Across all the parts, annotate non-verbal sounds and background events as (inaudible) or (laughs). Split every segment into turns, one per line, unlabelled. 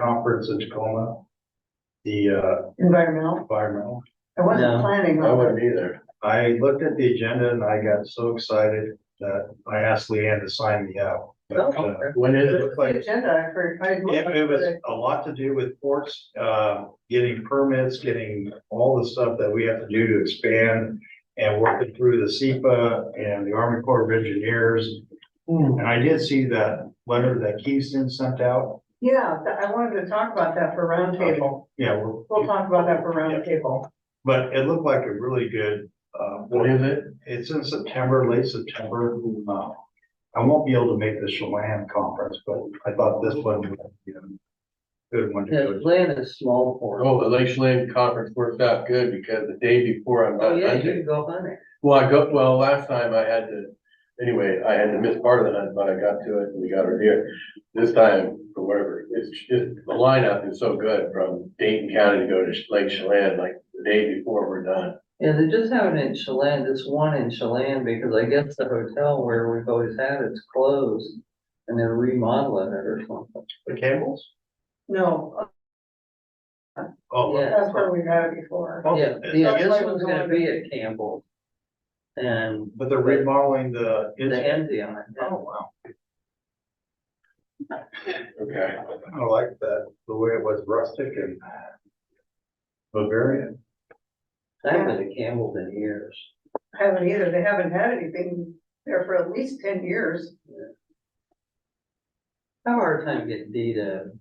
conference in Tacoma. The uh,
environmental,
environmental,
I wasn't
No.
planning
I
on
wouldn't
it.
either. I looked at the agenda and I got so excited that I asked Leanne to sign me out. But
Oh,
uh,
okay.
when it
The
looked like
agenda, I heard, I. had looked
It,
at
it was
it.
a lot to do with ports, uh, getting permits, getting all the stuff that we have to do to expand. And working through the SEPA and the Army Corps of Engineers. And I did see that letter that Keystone sent out.
Yeah, th- I wanted to talk about that for roundtable.
Yeah, we're-
We'll talk about that for
Yeah.
roundtable.
but it looked like a really good, uh,
What is it?
it's in September, late September. Uh, I won't be able to make the Chelan conference, but I thought this one would be a good one to go
The
to.
land is small for. it.
Oh, the Lakeland Conference worked out good because the day before I'm
Oh,
not
yeah, you
hunting.
can go on it.
Well, I go, well, last time I had to, anyway, I had to miss part of the hunt, but I got to it and we got her deer. This time, for whatever, it's just, the lineup is so good from Dayton County to go to Lake Chelan, like the day before we're done.
Yeah, they just have it in Chelan, this one in Chelan, because I guess the hotel where we've always had it's closed. And they're remodeling it or something.
The Campbells?
No,
Oh,
Yeah.
that's where we've had it before.
Oh,
Yeah,
it's-
the
I guess
other
it was
one's gonna
on-
be at Campbell. And
But they're remodeling the.
the Enzion.
Oh, wow.
Okay.
I like that, the way it was rustic and Bavarian.
I haven't been to Campbell in years.
Haven't either. They haven't had anything there for at least ten years.
I have a hard time getting Dee to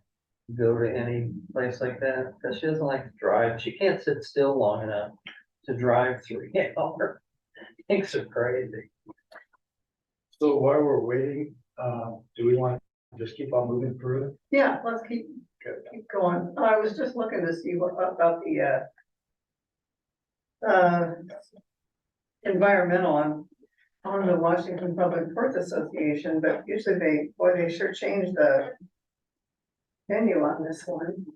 go to any place like that, because she doesn't like to drive. She can't sit still long enough to drive three (laughs) hours. Things are crazy.
So while we're waiting, uh, do we want to just keep on moving through?
Yeah, let's keep, keep going. I was just looking to see what about the, uh, uh, environmental on, on the Washington Public Ports Association, but usually they, boy, they sure change the venue on this one.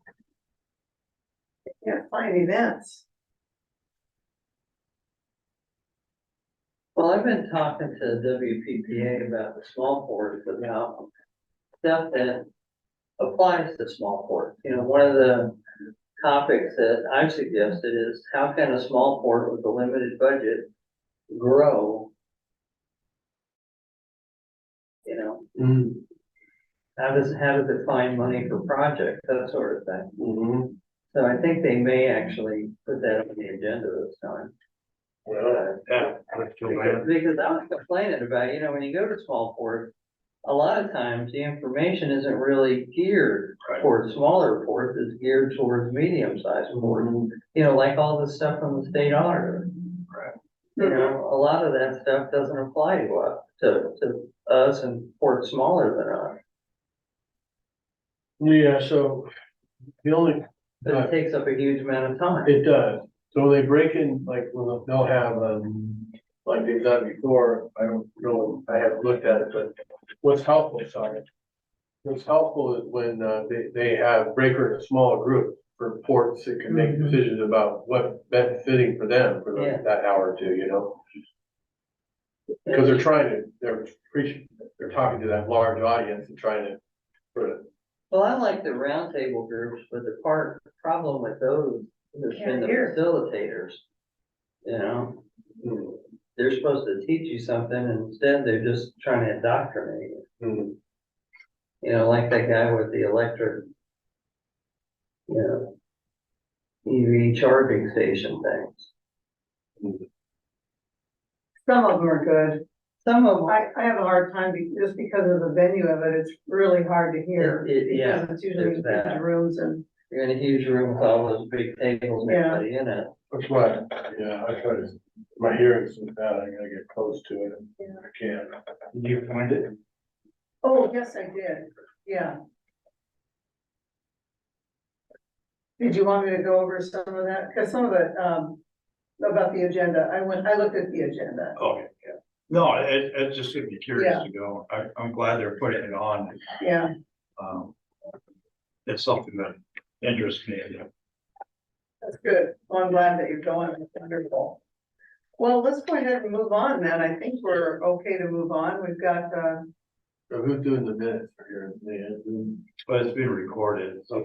Can't find events.
Well, I've been talking to WPPA about the small ports, about stuff that applies to small ports. You know, one of the topics that I've suggested is how can a small port with a limited budget grow? You know,
Mm-hmm.
how does, how does it find money for projects, that sort of thing.
Mhm.
So I think they may actually put that on the agenda this time.
Well,
Yeah. let's go
Because
ahead.
because I was complaining about, you know, when you go to small port, a lot of times the information isn't really geared
Right.
towards smaller ports, it's geared towards medium sized ports. You know, like all the stuff from the state auditor, you
Mm-hmm.
know, a lot of that stuff doesn't apply to us, to, to us and ports smaller than us.
yeah, so the only
But it takes up a huge amount of time.
It does. So they break in, like, well, they'll have, um, like they've done before, I don't know, I haven't looked at it, but what's helpful, sorry. What's helpful is when, uh, they, they have breaker in a small group for ports that can make
Mhm.
decisions about what best fitting for them for
Yeah.
that hour or two, you know? Because they're trying to, they're preaching, they're talking to that large audience and trying to, sort of
Well, I like the roundtable groups, but the part, problem with those has been the
Can't hear.
facilitators. You know,
mm,
they're supposed to teach you something, and instead they're just trying to indoctrinate you.
mm,
You know, like that guy with the electric, you know, EV charging station things.
Some of them are good.
Some of them,
I, I have a hard time be- just because of the venue of it. It's really hard to hear.
It- it- yeah,
because It's usually
there's that.
in rooms and,
you're in a huge room with all those big tables, and
Yeah.
everybody in it.
that's why, yeah, I try to, my hearing's so bad, I gotta get close to it, if I can.
Did you find it?
oh, yes, I did. Yeah. Did you want me to go over some of that? Because some of it, um, about the agenda, I went, I looked at the agenda.
Okay, Oh, yeah. No, it, it just would be curious to go. I, I'm glad they're putting it on.
Yeah,
Um, It's something that interests me.
that's good. Well, I'm glad that you're going. It's Wonderful. Well, let's go ahead and move on then. I think we're okay to move on. We've got, uh,
So who's doing the minutes for here? Leanne?
But it's been recorded, so